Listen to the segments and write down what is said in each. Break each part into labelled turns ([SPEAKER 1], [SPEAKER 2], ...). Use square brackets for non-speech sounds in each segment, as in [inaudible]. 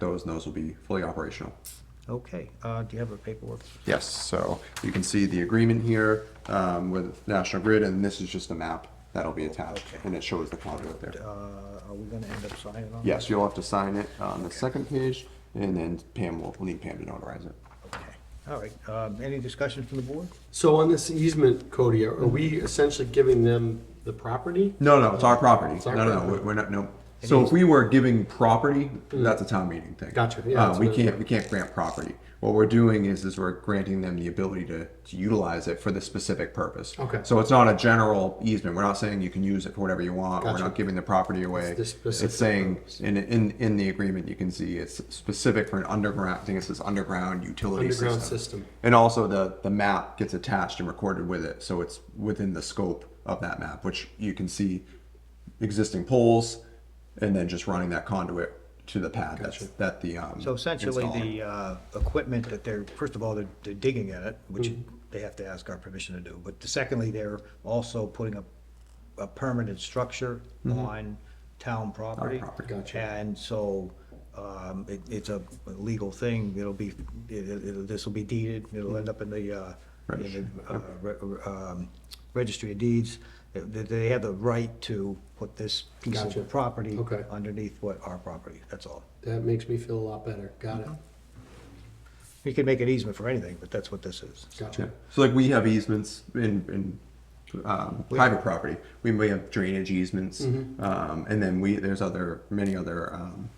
[SPEAKER 1] those, and those will be fully operational.
[SPEAKER 2] Okay, uh, do you have a paperwork?
[SPEAKER 1] Yes, so you can see the agreement here um, with National Grid, and this is just a map that'll be attached,
[SPEAKER 2] Okay.
[SPEAKER 1] and it shows the conduit
[SPEAKER 2] Uh,
[SPEAKER 1] there.
[SPEAKER 2] are we gonna end up signing on?
[SPEAKER 1] Yes, you'll have to sign it on the second page, and then Pam will, we'll need Pam to notarize it.
[SPEAKER 2] Okay, all right, um, any discussion from the board?
[SPEAKER 3] So on this easement, Cody, are are we essentially giving them the property?
[SPEAKER 1] No, no, it's our property.
[SPEAKER 3] our
[SPEAKER 1] No, no, no,
[SPEAKER 3] property.
[SPEAKER 1] we- we're not, no. So if we were giving property, that's a town meeting thing.
[SPEAKER 3] Gotcha, yeah,
[SPEAKER 1] Uh,
[SPEAKER 3] that's
[SPEAKER 1] we
[SPEAKER 3] what-
[SPEAKER 1] can't, we can't grant property. What we're doing is, is we're granting them the ability to, to utilize it for the specific purpose.
[SPEAKER 3] Okay.
[SPEAKER 1] So it's not a general easement. We're not saying you can use it for whatever you want. We're
[SPEAKER 3] Gotcha.
[SPEAKER 1] not giving the property away.
[SPEAKER 3] the specific
[SPEAKER 1] It's saying, in, in, in the agreement, you can see it's specific for an underground, I think it says underground utility system.
[SPEAKER 3] Underground system.
[SPEAKER 1] And also the, the map gets attached and recorded with it, so it's within the scope of that map, which you can see existing poles and then just running that conduit to the pad that's, that the, um.
[SPEAKER 2] So essentially,
[SPEAKER 1] installer-
[SPEAKER 2] the, uh, equipment that they're, first of all, they're, they're digging in it, which they have to ask our permission to do, but secondly, they're also putting a, a permanent structure on town property.
[SPEAKER 1] property.
[SPEAKER 3] Gotcha.
[SPEAKER 2] And so, um, it, it's a legal thing, it'll be, it, it, this'll be deeded, it'll end up in the, uh, in the, uh, re- um, registry of deeds. They, they have the right to put this piece
[SPEAKER 3] Gotcha.
[SPEAKER 2] of property
[SPEAKER 3] Okay.
[SPEAKER 2] underneath what our property, that's all.
[SPEAKER 3] That makes me feel a lot better. Got it.
[SPEAKER 2] You can make an easement for anything, but that's what this is.
[SPEAKER 1] Yeah,
[SPEAKER 3] Gotcha.
[SPEAKER 1] so like we have easements in, in, um, private property, we may have drainage easements,
[SPEAKER 2] Mm-hmm.
[SPEAKER 1] um, and then we, there's other, many other, um,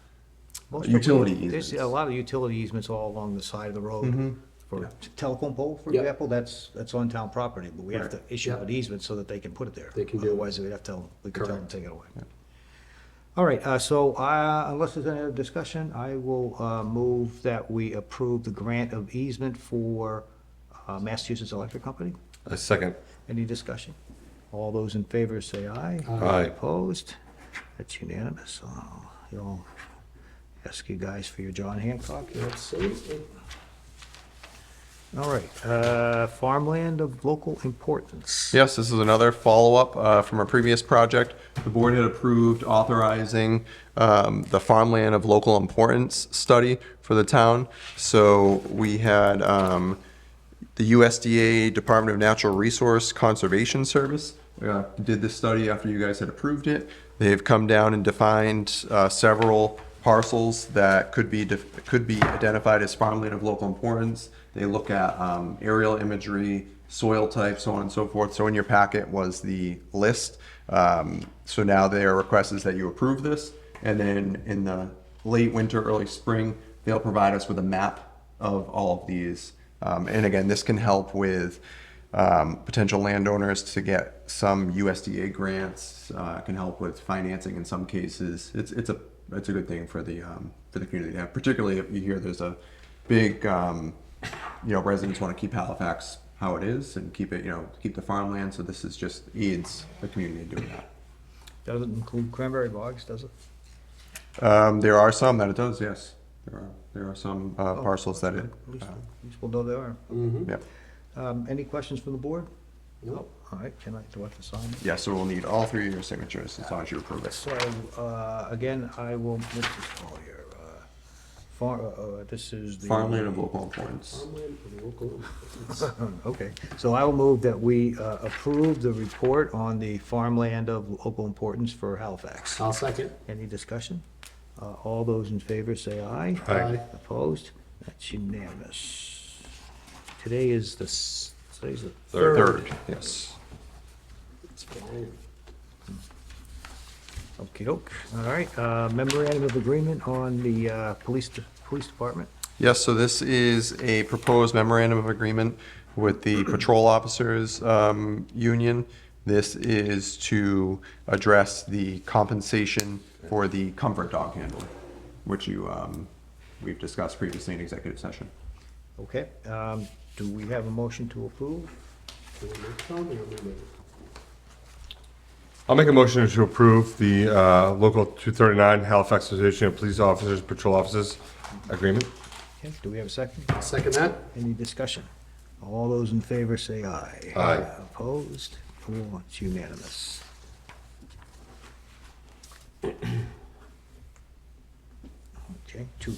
[SPEAKER 2] Most
[SPEAKER 1] Utility
[SPEAKER 2] people- There's a
[SPEAKER 1] easements.
[SPEAKER 2] lot of utility easements all along the side of the road. For telephone pole, for
[SPEAKER 3] Mm-hmm. Yeah.
[SPEAKER 2] example, that's, that's on town property, but we have to
[SPEAKER 1] Right.
[SPEAKER 2] issue
[SPEAKER 3] Yeah.
[SPEAKER 2] an easement so that they can put it there.
[SPEAKER 3] They can do it.
[SPEAKER 2] Otherwise, we'd have to, we could tell them
[SPEAKER 3] Correct.
[SPEAKER 2] to take it away. All right, uh, so, uh, unless there's any other discussion, I will, uh, move that we approve the grant of easement for, uh, Massachusetts Electric Company.
[SPEAKER 4] A second.
[SPEAKER 2] Any discussion? All those in favor say aye.
[SPEAKER 4] Aye.
[SPEAKER 2] Opposed? That's unanimous. I'll I'll ask you guys for your John Hancock.
[SPEAKER 3] Absolutely.
[SPEAKER 2] All right, uh, farmland of local importance.
[SPEAKER 1] Yes, this is another follow-up uh, from a previous project. The board had approved authorizing um, the farmland of local importance study for the town. So we had um, the USDA Department of Natural Resource Conservation Service uh, did this study after you guys had approved it. They've come down and defined uh, several parcels that could be, def- could be identified as farmland of local importance. They look at um, aerial imagery, soil type, so on and so forth. So in your packet was the list. Um, So now their request is that you approve this. And then in the late winter, early spring, they'll provide us with a map of all of these. Um, and again, this can help with um, potential landowners to get some USDA grants. Uh, can help with financing in some cases. It's it's a it's a good thing for the um, for the community. Yeah, particularly if you hear there's a big um, you know residents want to keep Halifax how it is and keep it you know keep the farmland. So this is just aids the community in doing that.
[SPEAKER 2] Doesn't include cranberry bogs, does it?
[SPEAKER 1] Um, there are some that it does. Yes, there are there are some uh, parcels that it.
[SPEAKER 2] At least-
[SPEAKER 1] Uh,
[SPEAKER 2] at least we'll know there are.
[SPEAKER 1] yeah.
[SPEAKER 2] Um, Any questions from the board?
[SPEAKER 3] Nope.
[SPEAKER 2] All right, can I, do I have to sign? it?
[SPEAKER 1] Yeah, so we'll need all three of your signatures as long as you approve it.
[SPEAKER 2] So, uh, again, I will, what's this called here? Uh, Far, uh, uh, this is the.
[SPEAKER 1] Farmland of local importance.
[SPEAKER 3] Farmland and local improvements.
[SPEAKER 2] Hmm, Okay, so I will move that we uh, approve the report on the farmland of local importance for Halifax.
[SPEAKER 3] I'll second.
[SPEAKER 2] Any discussion? Uh, All those in favor say aye.
[SPEAKER 4] Aye.
[SPEAKER 2] Opposed? That's unanimous. Today is the, s- today's the
[SPEAKER 4] Third.
[SPEAKER 1] Third, yes.
[SPEAKER 3] It's fine.
[SPEAKER 2] okey doke. All right, uh, memorandum of agreement on the uh, police, de- police department.
[SPEAKER 1] Yes, so this is a proposed memorandum of agreement with the [clears throat] patrol officers um, union. This is to address the compensation for the comfort dog handler, which you, um, we've discussed previously in executive session.
[SPEAKER 2] Okay, um, do we have a motion to approve?
[SPEAKER 3] Do we make some or we make it?
[SPEAKER 4] I'll make a motion to approve the uh, Local 239 Halifax Association of Police Officers Patrol Officers Agreement.
[SPEAKER 2] Okay, do we have a second?
[SPEAKER 3] I'll Second that?
[SPEAKER 2] Any discussion? All those in favor say aye.
[SPEAKER 4] Aye.
[SPEAKER 2] Opposed? Oh, It's unanimous. [clears throat] Okay, two,